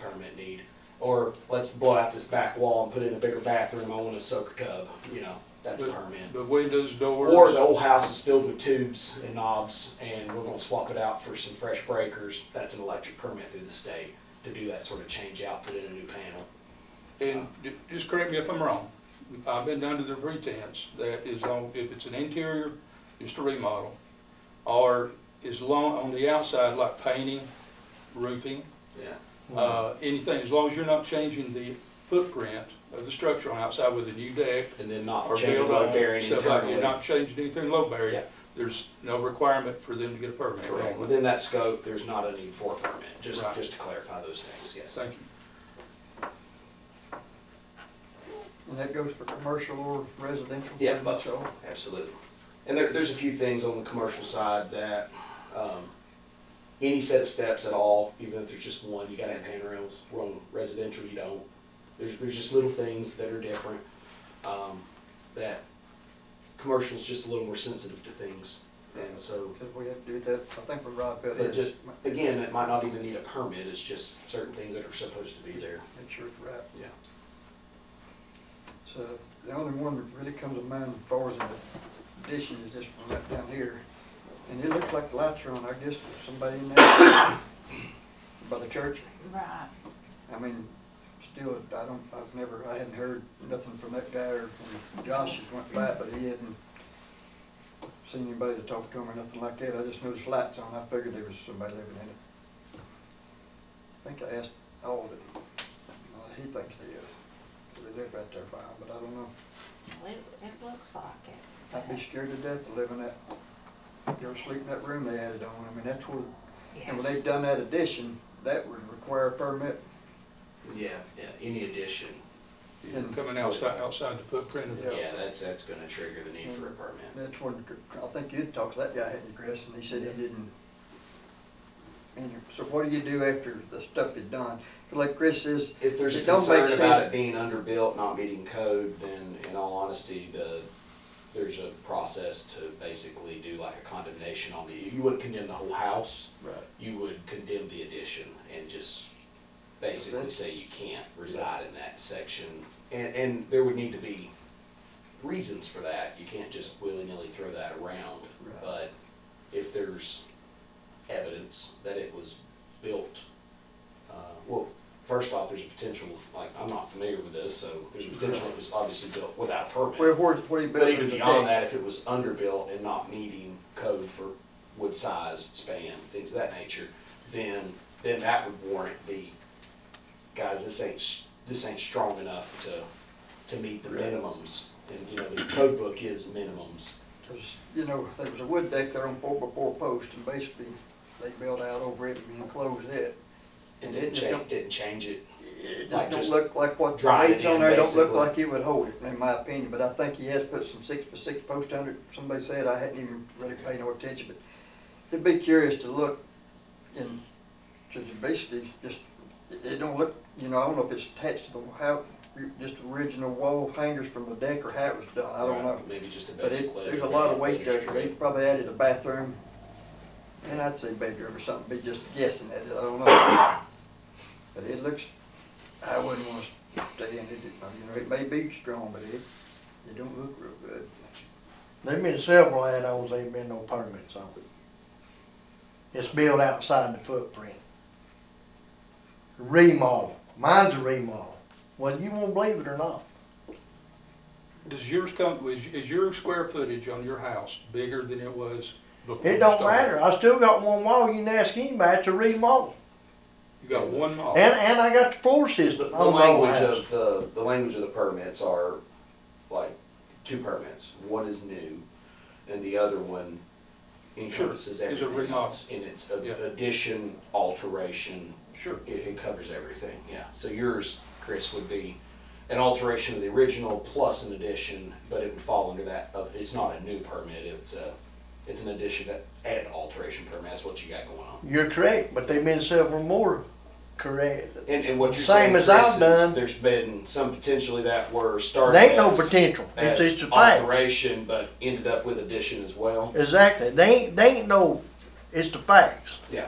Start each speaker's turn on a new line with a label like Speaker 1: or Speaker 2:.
Speaker 1: permit need. Or let's blow out this back wall and put in a bigger bathroom, I want a soaker tub, you know, that's a
Speaker 2: The-
Speaker 1: permit.
Speaker 2: The windows, doors.
Speaker 1: Or the old house is filled with tubes and knobs and we're gonna swap it out for some fresh breakers, that's an electric permit through the state to do that sort of change out, put in a new panel.
Speaker 2: And ju- just correct me if I'm wrong, I've been under the pretense that is on, if it's an interior, just a remodel, or is long, on the outside, like painting, roofing,
Speaker 1: Yeah.
Speaker 2: uh, anything, as long as you're not changing the footprint of the structure on outside with a new deck
Speaker 1: And then
Speaker 2: or
Speaker 1: not change the
Speaker 2: build
Speaker 1: load
Speaker 2: on,
Speaker 1: bearing
Speaker 2: stuff like, you're
Speaker 1: internally.
Speaker 2: not changing anything low bearing,
Speaker 1: Yeah.
Speaker 2: there's no requirement for them to get a permit.
Speaker 1: Correct, within that scope, there's not a need for a permit, just,
Speaker 2: Right.
Speaker 1: just to clarify those things, yes.
Speaker 2: Thank you.
Speaker 3: And that goes for commercial or residential?
Speaker 1: Yeah,
Speaker 3: pretty much
Speaker 1: both,
Speaker 3: all?
Speaker 1: absolutely. And there, there's a few things on the commercial side that, um, any set of steps at all, even if there's just one, you gotta have handrails. Where on residential, you don't. There's, there's just little things that are different, um, that commercial's just a little more sensitive to things. And so,
Speaker 3: Because we have to do that, I think we're right about
Speaker 1: it
Speaker 3: it.
Speaker 1: just, again, it might not even need a permit, it's just certain things that are supposed to be there,
Speaker 3: Make sure it's right.
Speaker 1: yeah.
Speaker 3: So the only one that really comes to mind as far as an addition is this one right down here. And it looks like the lights are on, I guess, for somebody in there by the church.
Speaker 4: Right.
Speaker 3: I mean, still, I don't, I've never, I hadn't heard nothing from that guy or when Josh has went by, but he hadn't seen anybody to talk to him or nothing like that. I just noticed lights on. I figured there was somebody living in it. I think I asked Alden. Well, he thinks they is. 'cause they live right there by him, but I don't know.
Speaker 4: Well, It, it looks like it.
Speaker 3: I'd be scared to death of living that, go sleep in that room they added on. I mean, that's where, and when
Speaker 4: Yes.
Speaker 3: they've done that addition, that would require a permit.
Speaker 1: Yeah, yeah, any addition,
Speaker 2: You're coming outside, outside the footprint of the
Speaker 3: Yeah.
Speaker 1: yeah, that's, that's gonna trigger the need for a permit.
Speaker 3: That's when, I think you'd talked to that guy, hadn't you, Chris, and he said he didn't. And so what do you do after the stuff is done? 'Cause Like Chris says,
Speaker 1: If there's a
Speaker 3: It don't make
Speaker 1: concern about
Speaker 3: sense.
Speaker 1: it being underbuilt, not meeting code, then in all honesty, the, there's a process to basically do like a condemnation on the, you wouldn't condemn the whole house.
Speaker 3: Right.
Speaker 1: You would condemn the addition and just basically
Speaker 3: That's-
Speaker 1: say you can't reside in that section. And, and there would need to be reasons for that. You can't just willy-nilly throw that around.
Speaker 3: Right.
Speaker 1: But if there's evidence that it was built, uh, well, first off, there's a potential, like, I'm not familiar with this, so there's a potential it was obviously built without a
Speaker 3: where,
Speaker 1: permit.
Speaker 3: where, where he built.
Speaker 1: But even beyond that, if it was underbuilt and not meeting code for wood size, span, things of that nature, then, then that would warrant the, guys, this ain't, s- this ain't strong enough to, to meet the minimums. And, you know, the code book is minimums.
Speaker 3: Because, you know, there was a wood deck there on four by four post, and basically, they built out over it and enclosed it.
Speaker 1: And
Speaker 3: it
Speaker 1: didn't
Speaker 3: just
Speaker 1: change,
Speaker 3: don't-
Speaker 1: didn't change it.
Speaker 3: It
Speaker 1: Like
Speaker 3: just
Speaker 1: just
Speaker 3: don't look like what, the
Speaker 1: drive it
Speaker 3: leaves on
Speaker 1: in,
Speaker 3: there don't look
Speaker 1: basically.
Speaker 3: like it would hold it, in my opinion, but I think he has put some six by six post under, it. somebody said, I hadn't even really paid no attention, but it'd be curious to look in, to to basically just, it, it don't look, you know, I don't know if it's attached to the, how, just the original wall hangers from the deck or how it was done, I don't know.
Speaker 1: Maybe just a
Speaker 3: But
Speaker 1: basic
Speaker 3: it,
Speaker 1: ledge.
Speaker 3: there's a
Speaker 1: maybe
Speaker 3: lot of
Speaker 1: a
Speaker 3: weight there,
Speaker 1: ledge
Speaker 3: they
Speaker 1: strip.
Speaker 3: probably added a bathroom, and I'd say bedroom or something, be just guessing at it, I don't know. But it looks, I wouldn't wanna stay in it, you know, it may be strong, but it, it don't look real good.
Speaker 5: There've been several add-ons, ain't been no permits on it. It's built outside the footprint. Remodel, mine's a remodel, whether you won't believe it or not.
Speaker 2: Does yours come, is, is your square footage on your house bigger than it was before?
Speaker 5: It
Speaker 2: you
Speaker 5: don't
Speaker 2: started?
Speaker 5: matter, I still got one wall, you can ask anybody, it's a remodel.
Speaker 2: You got one mile.
Speaker 5: And, and I got the floor
Speaker 1: The,
Speaker 5: system
Speaker 1: the
Speaker 3: Oh,
Speaker 5: on the old
Speaker 1: language uh,
Speaker 5: house.
Speaker 1: of the, the language of the permits are like two permits. One is new and the other one encompasses
Speaker 2: Sure, is a
Speaker 1: everything
Speaker 2: remodel.
Speaker 1: else. And it's a-
Speaker 2: Yeah.
Speaker 1: addition, alteration,
Speaker 2: Sure.
Speaker 1: it, it covers everything, yeah. So yours, Chris, would be an alteration of the original plus an addition, but it would fall under that of, it's not a new permit, it's a, it's an addition and alteration permit, that's what you got going on.
Speaker 5: You're correct, but there've been several more correct.
Speaker 1: And, and what you're
Speaker 5: Same
Speaker 1: saying,
Speaker 5: as
Speaker 1: Chris,
Speaker 5: I've
Speaker 1: is
Speaker 5: done.
Speaker 1: There's been some potentially that were started.
Speaker 5: There ain't no
Speaker 1: as-
Speaker 5: potential, it's,
Speaker 1: as
Speaker 5: it's a fact.
Speaker 1: alteration, but ended up with addition as well.
Speaker 5: Exactly, they ain't, they ain't no, it's the facts.
Speaker 1: Yeah,